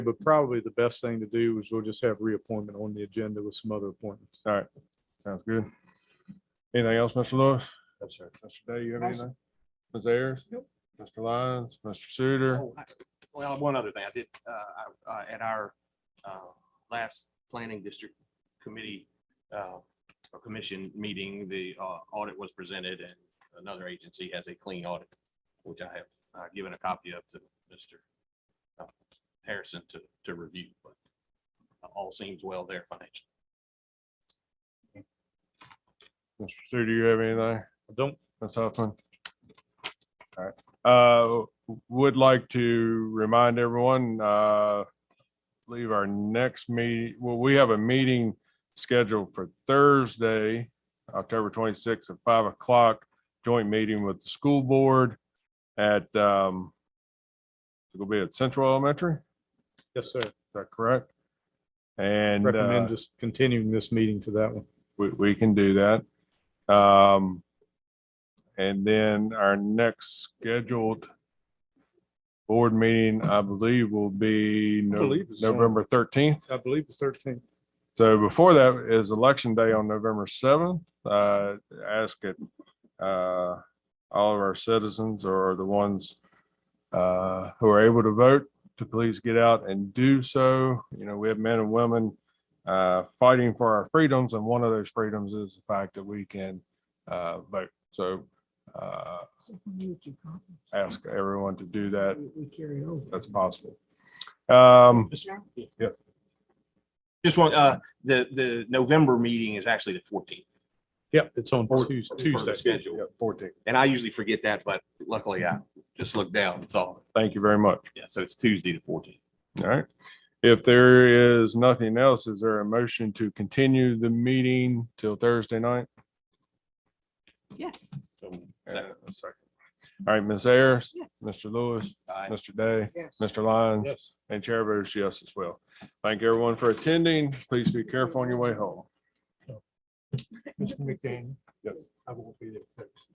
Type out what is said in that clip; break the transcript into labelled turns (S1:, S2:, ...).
S1: but probably the best thing to do is we'll just have reappointment on the agenda with some other appointments.
S2: All right, sounds good. Anything else, Mr. Lewis?
S3: No, sir.
S2: Mr. Day, you have
S4: No,
S2: anything? Ms. Ayers? Mr. Lyons, Mr. Suter,
S3: Oh, I- Well, one other thing I did, uh, I- uh, at our, uh, last planning district committee, uh, or commission meeting, the, uh, audit was presented and another agency has a clean audit, which I have, uh, given a copy of to Mr. uh, Harrison to, to review, but all seems well there financially.
S2: Mr. Suter, you have anything?
S1: I Don't,
S2: Ms. Huffman? All right, uh, would like to remind everyone, uh, leave our next meet, well, we have a meeting scheduled for Thursday, October twenty-sixth at five o'clock, joint meeting with the school board at, um, it'll be at Central Elementary, is
S1: yes, sir.
S2: that correct? And. uh,
S1: Recommend just continuing this meeting to that one.
S2: we, we can do that. Um, and then our next scheduled board meeting, I believe, will be
S1: I
S2: No-
S1: believe it's on-
S2: November thirteenth.
S1: I believe the thirteenth.
S2: So before that is election day on November seventh. Uh, ask it, uh, all of our citizens or the ones uh, who are able to vote to please get out and do so. You know, we have men and women uh, fighting for our freedoms, and one of those freedoms is the fact that we can uh, vote. So uh, ask everyone to do that.
S4: We carry over.
S2: That's possible. Um, Yep.
S3: Just one, uh, the, the November meeting is actually the fourteenth.
S1: Yep, it's on Tues- Tuesday.
S3: Schedule.
S2: yeah, 14.
S3: And I usually forget that, but luckily I just looked down and saw. it.
S2: Thank you very much.
S3: Yeah, so it's Tuesday, the fourteenth.
S2: All right. If there is nothing else, is there a motion to continue the meeting till Thursday night?
S4: Yes,
S2: Uh, a second. All right, Ms. Ayers,
S4: yes.
S2: Mr. Lewis,
S3: Aye.
S2: Mr. Day,
S4: Yes.
S2: Mr. Lyons,
S1: Yes.
S2: and Chair votes yes as well. Thank everyone for attending. Please be careful on your way home.
S4: Mr. McDaniel.
S2: Yes.
S1: I won't be there.